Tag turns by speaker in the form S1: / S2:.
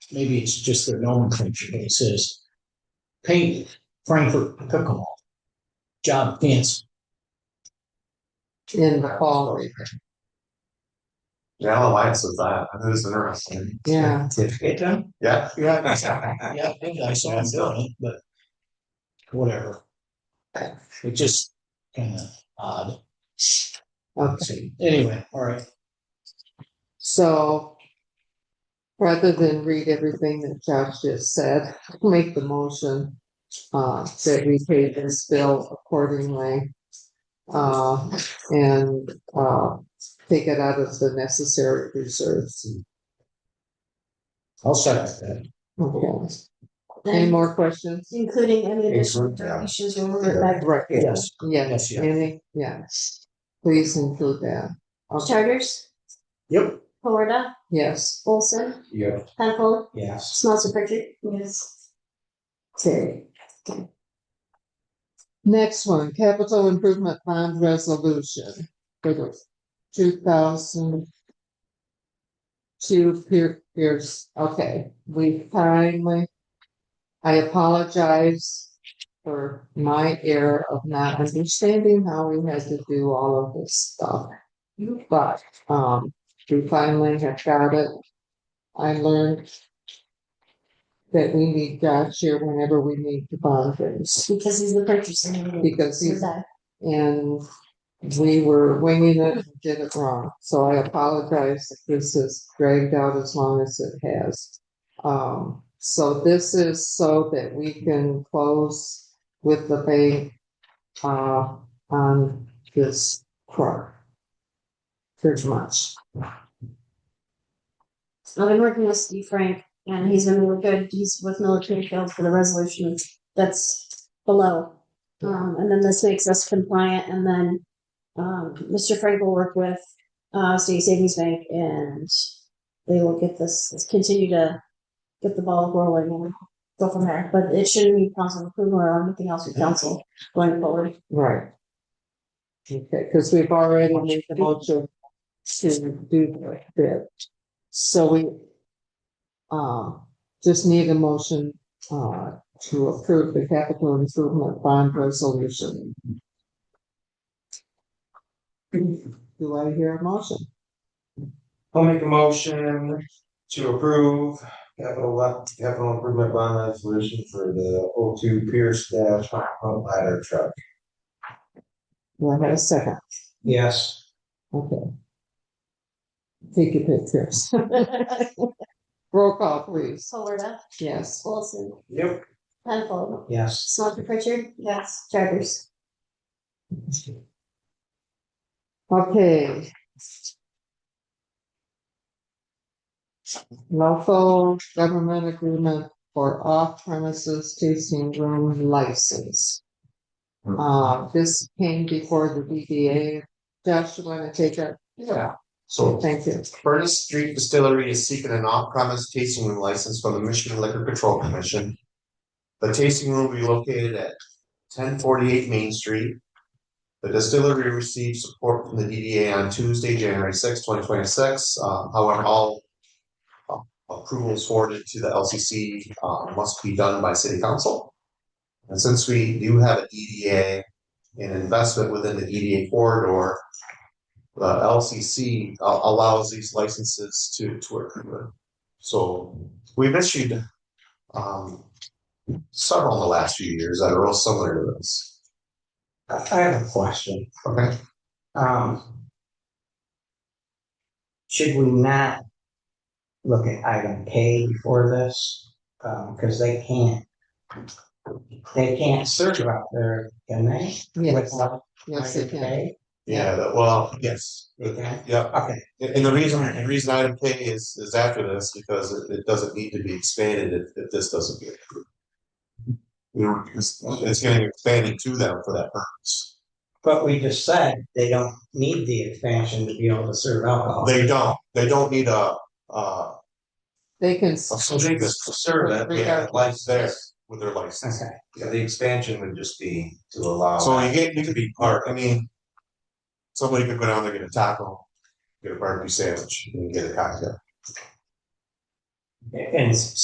S1: maybe it's just their nomenclature, but it says paint Frankfurt pickleball job fence.
S2: in the fall River.
S3: Yeah, the lights with that. That is interesting.
S2: Yeah.
S1: It done?
S3: Yeah.
S1: Yeah, yeah, I think I saw him doing it, but whatever. It just kind of odd.
S2: Okay,
S1: So, Anyway, all right.
S2: so rather than read everything that Josh just said, make the motion uh, that we pay this bill accordingly. Uh, and, uh, take it out of the necessary reserves.
S1: I'll start with that.
S2: Okay, any
S4: Then,
S2: more questions?
S4: including any additional
S3: Include, yeah.
S4: donations or like
S2: Right,
S1: Yes.
S2: yes,
S1: Yes, yeah.
S2: any, yes, please include that. Okay,
S4: charters,
S1: Yep.
S4: Florida,
S2: yes,
S4: Olson,
S3: Yeah.
S4: Penfold,
S1: Yes.
S4: Smelter Pritchard. Yes. Okay.
S2: next one, capital improvement bond resolution for the two thousand two Pier- Pierce, okay, we finally, I apologize for my error of not understanding how we had to do all of this stuff. But, um, we finally have got it. I learned that we need Josh here whenever we need to bond things,
S4: Because he's the purchaser.
S2: because
S4: So
S2: he's
S4: that-
S2: and we were winging it, and did it wrong, so I apologize if this has dragged out as long as it has. Um, so this is so that we can close with the bank, uh, on this truck. Pretty much,
S4: I've been working with Steve Frank and he's been really good. He's with military field for the resolution that's below. Um, and then this makes us compliant and then, um, Mr. Frank will work with, uh, State Savings Bank and they will get this, continue to get the ball rolling and go from there. But it shouldn't be council approval or anything else with council going forward.
S2: right. Okay, cause we've already made the motion to do that, so we. Uh, just need a motion, uh, to approve the capital improvement bond resolution. Do I hear a motion?
S3: I'll make a motion to approve capital left, capital improvement bond resolution for the O two Pierce dash Hot Front ladder truck.
S2: Do I have a second?
S3: Yes.
S2: Okay. Take your pictures. Roll call, please.
S4: Florida,
S2: Yes.
S4: Wilson,
S3: Yep.
S4: Penfold,
S3: Yes.
S4: Smelter Pritchard. Yes. Charters.
S2: Okay. Local government agreement for off premises tasting room license.
S3: Hmm.
S2: Uh, this came before the BDA. Josh, you wanna take it?
S3: Yeah. So
S2: Thank you.
S3: Furnace Street Distillery is seeking an off-premise tasting room license from the Michigan Liquor Control Commission. The tasting room will be located at ten forty-eight Main Street. The distillery received support from the DDA on Tuesday, January sixth, twenty twenty-six. Um, however, all uh, approvals forwarded to the LCC uh, must be done by city council. And since we do have a DDA, an investment within the DDA corridor, the LCC a- uh, allows these licenses to to occur. So we've issued um several in the last few years that are all similar to this.
S5: I I have a question.
S3: Okay,
S5: Um. Should we not look at item K before this? Um, cause they can't. They can't search out there, can they?
S2: Yes,
S5: Without
S2: yes, it
S5: item
S2: can.
S5: K?
S3: yeah, that, well, yes,
S5: They can,
S3: yeah,
S5: okay,
S3: and and the reason, the reason item K is is after this because it it doesn't need to be expanded if if this doesn't get approved. You know, it's it's getting expanded to them for that purpose.
S5: but we just said they don't need the expansion to be able to serve alcohol.
S3: They don't, they don't need a uh
S2: They can.
S3: Well, So they just serve that, yeah, license there with their license.
S5: Okay,
S6: Yeah, the expansion would just be to allow.
S3: So you get, you could be part, I mean. Somebody could go down there, get a taco, get a barbecue sandwich, and get a cocktail.
S5: and